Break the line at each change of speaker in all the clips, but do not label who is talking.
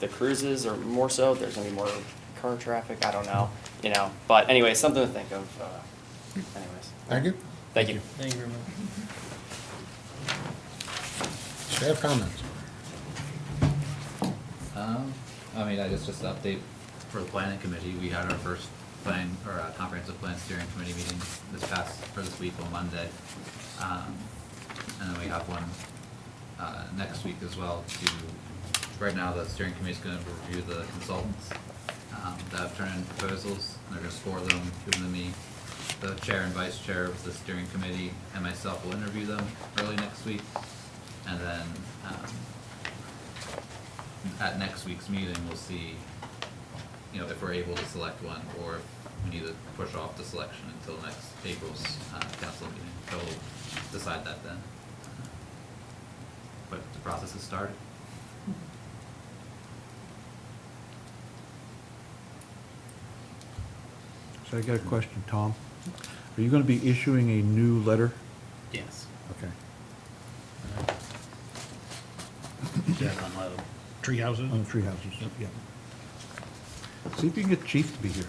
the cruises or more so, there's gonna be more car traffic, I don't know, you know, but anyway, something to think of, uh, anyways.
Thank you.
Thank you.
Thank you very much.
Staff comments.
Um, I mean, I guess just an update for the planning committee, we had our first plan, or uh, comprehensive plan steering committee meeting this past, for this week on Monday. Um, And then we have one, uh, next week as well to, right now, the steering committee's gonna review the consultants, um, that have turned in proposals, and they're gonna score them, give them to me. The chair and vice chair of the steering committee and myself will interview them early next week, and then, um, at next week's meeting, we'll see, you know, if we're able to select one, or if we need to push off the selection until next April's, uh, council meeting, so we'll decide that then. But the process has started.
So I got a question, Tom. Are you gonna be issuing a new letter?
Yes.
Okay.
Tree houses?
On the tree houses, yeah. See if you can get Chief to be here.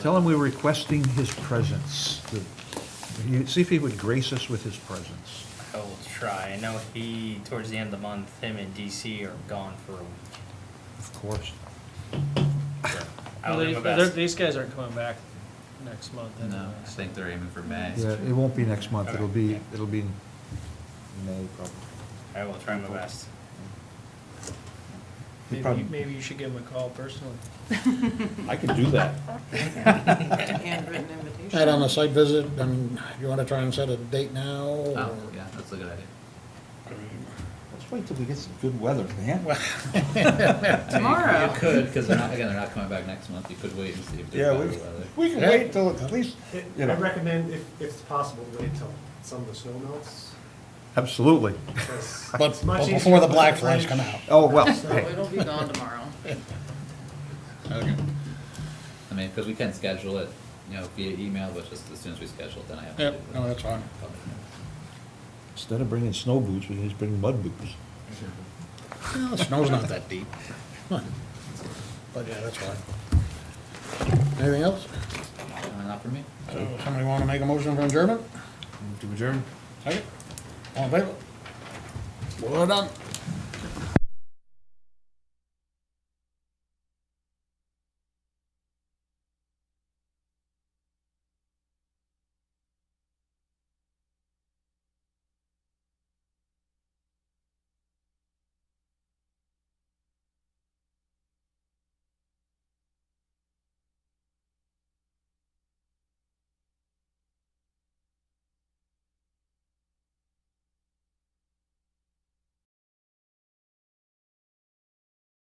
Tell him we're requesting his presence. The- he- See if he would grace us with his presence.
I will Oh, try. I know he, towards the end of the month, him and DC are gone for a week.
Of course.
I'll
Well,
do my
they- they're-
best.
These guys aren't coming back next month. uh,
No, I
anyways.
think they're aiming for May.
Yeah, it won't be next month, it'll be, it'll be in May probably.
I will try my best.
He
Maybe,
probably-
maybe you should give him a call personally.
I can do that.
handwritten invitation.
Add on a site visit, and you want to try and set a date now? or-
Oh, yeah, that's a good idea.
Let's wait till we get some good weather, man.
Tomorrow.
You could, cause they're not, again, they're not coming back next month, you could wait and see if
Yeah,
they're
we,
better weather.
we can wait till at least,
It-
you
I
know.
recommend, if, if it's possible, to wait till some of the snow melts.
Absolutely.
'cause
But
it's much
but
easier
before the
to
black
put
flies come
French-
out.
Oh, well,
So
hey.
it'll be gone tomorrow.
I mean, cause we can schedule it, you know, via email, but just as soon as we schedule it, then I have to.
Yep,
do it.
no, that's fine.
Public notice.
Instead of bringing snow boots, we can just bring mud boots.
Well, the snow's not that deep. But yeah, that's fine. Anything else?
Uh, Not for me?
So Somebody want to make a motion for adjournment? To adjourn. Second? All in favor? Well done.